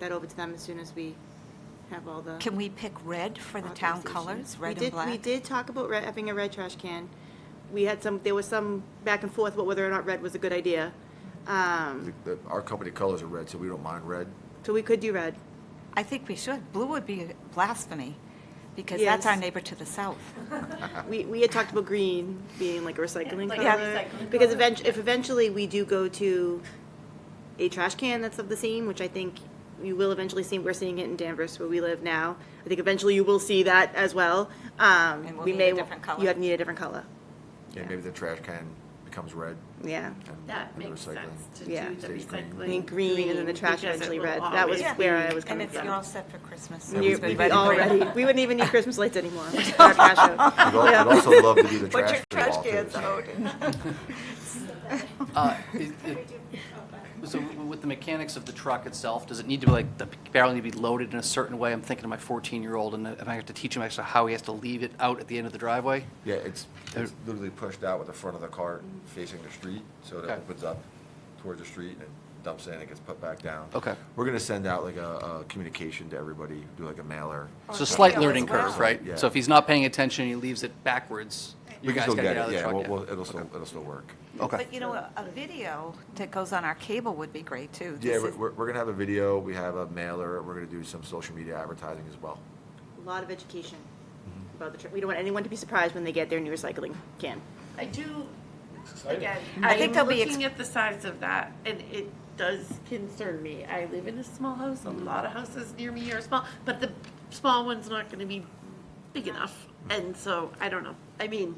that over to them as soon as we have all the. Can we pick red for the town authorization. colors, We red and did- black? We did talk about re- having a red trash can. We had some, there was some back and forth about whether or not red was a good idea. Um, The- the- Our company colors are red, so we don't mind red. So we could do red. I think we should. Blue would be blasphemy, because that's our Yes. neighbor to the south. We, we had talked about green being like a recycling Like color. a recycling Because color. eventually, if eventually we do go to a trash can that's of the same, which I think you will eventually see, we're seeing it in Danvers where we live now. I think eventually you will see that as well. Um, And we'll we need may a wa- different color. You have need a different color, Yeah, maybe the trash can becomes red. yeah. and- That and the makes recycling. sense to Yeah. do the Stays green. I recycling. mean, green and then the trash because it eventually will red. That was always where be- I was And coming it's, from. you're all set for Christmas. Yeah, It's You're- we- good, We'd be red and all green. ready. We wouldn't even need Christmas lights anymore. with our trash out. I'd al- I'd also love to be the Put trash your free wall, trash too. cans out. Uh, it- it- So with the mechanics of the truck itself, does it need to be like, the barrel need to be loaded in a certain way? I'm thinking of my 14-year-old, and if I have to teach him actually how he has to leave it out at the end of the driveway? Yeah, it's, it's literally pushed out with the front of the cart facing the street, so it Okay. opens up towards the street and it dumps in and gets put back down. Okay. We're gonna send out like a, a communication to everybody, do like a mailer. It's a slight Yeah, as learning well. curve, right? Yeah. So if he's not paying attention, and he leaves it backwards, you can guys still gotta get out of the Yeah, truck. we'll- yeah. we'll- it'll still, it'll still work. Okay. But you know, a a video that goes on our cable would be great, too. Yeah, This we're, is- we're we're gonna have a video, we have a mailer, we're gonna do some social media advertising as well. A lot of education about the, tr- we don't want anyone to be surprised when they get their new recycling can. I do, again, I think I'm they'll be ex- looking at the size of that, and it does concern me. I live in a small house, a Mm-hmm. lot of houses near me are small, but the small one's not gonna be big enough, and so, I don't know. I mean,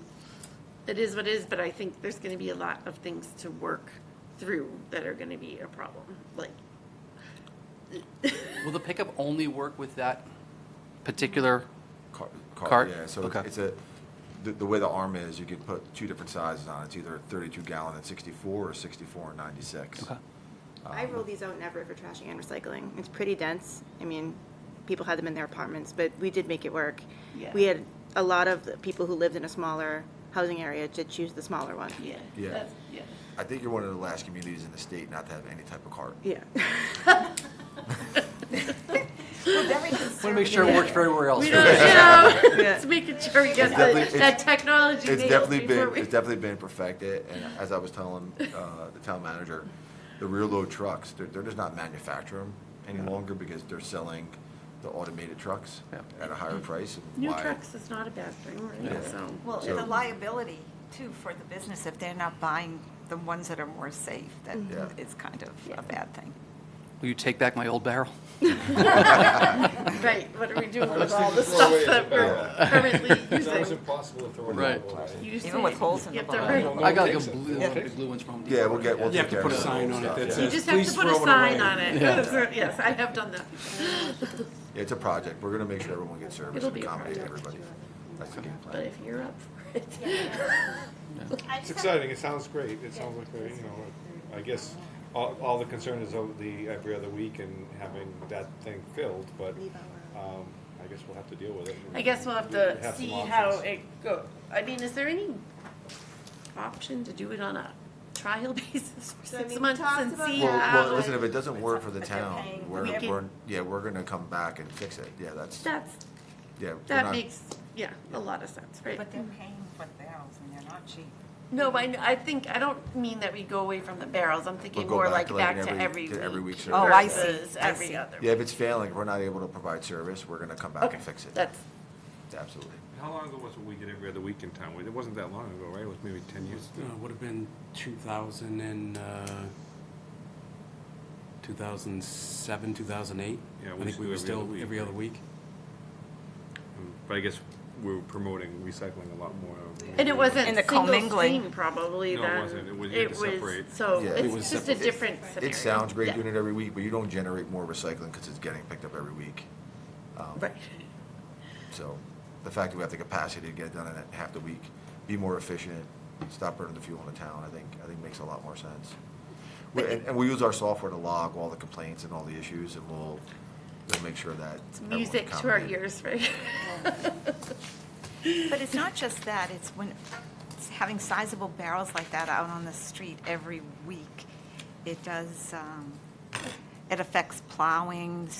it is what it is, but I think there's gonna be a lot of things to work through that are gonna be a problem, like, Will the pickup only work with that particular, Car- Cart? Yeah, so Okay. it's a, the, the way the arm is, you can put two different sizes on it. It's either thirty-two gallon and sixty-four or sixty-four and ninety-six. Okay. Um, I roll these out in Everett for trashing and recycling. It's pretty dense. I mean, people had them in their apartments, but we did make it work. Yeah. We had a lot of the people who lived in a smaller housing area to choose the smaller one. yeah, Yeah. that's, yeah. I think you're one of the last communities in the state not to have any type of cart. Yeah. We're very want to make sure it works for everywhere else. We right? don't, know. Yeah. it's making sure we get definitely- the- it's- that technology It's nailed definitely before been, we- it's definitely been perfected, and as I was telling, uh, the town manager, the rear load trucks, they're, they're just not manufacturing any longer because they're selling the automated trucks Yeah. at a higher price. and New why- trucks is not a bad thing, Yeah. right? So, Well, and the liability, too, for the business, if they're not buying the ones that are more safe, that Yeah. is kind of a bad thing. Will you take back my old barrel? right, what are we doing with all the stuff that we're currently using? impossible to throw it Right. away. You Even with say holes in you the have to bottom. hurry. I got like a blue, one of the blue ones from Home Depot. Yeah, we'll get, we'll You have take to care put a of some old sign on it stuff, that yeah. You says, just have please to put a throw it sign on away. it. Yes, I have done that. It's a project. We're gonna make sure everyone gets service It'll and be a accommodate project. everybody. That's the game But plan. if you're up for it, It's exciting, it sounds great, it sounds like, a, you know, I guess, all, all the concern is over the, every other week and having that thing filled, but, um, I guess we'll have to deal with it. I guess we'll have We to have some see how options. it go. I mean, is there any option to do it on a trial basis for So, I mean, six we months talked and about see that. Well, well, how? listen, if it doesn't work for the But they're town, paying. we're, We can- we're, yeah, we're gonna come back and fix it. Yeah, that's, That's, yeah. we're that not- makes, yeah, a lot of sense, right? But they're paying for barrels, and they're not cheap. Mm-hmm. No, I, I think, I don't mean that we go away from the barrels, I'm thinking We'll go more back like to like back an to every- every to every week. week Oh, I see. versus I see. Every other. Yeah, if it's failing, if we're not able to provide service, we're gonna come back Okay, and fix it. that's, Absolutely. How long ago was it we did every other week in town? It wasn't that long ago, right? It was maybe ten years. Uh, would have been 2000 and, uh, 2007, 2008. Yeah, we I think used we to do every were other still week, every other week. But I guess we were promoting recycling a lot more. and it wasn't And the single commingling. stream probably No, then. it wasn't. It was- you had to separate. So Yeah. It it's was just a separate. different scenario. It sounds great Yeah. doing it every week, but you don't generate more recycling because it's getting picked up every week. Um, Right, So the fact that we have the capacity to get it done in half the week, be more efficient, stop burning the fuel in the town, I think, I think makes a lot more sense. We- And, and we use our software to log all the complaints and all the issues, and we'll, we'll make sure that. it's everyone's music to our accommodated. ears, right? But it's not just that, it's when, it's having sizable barrels like that out on the street every week, it does, um, it affects plowing,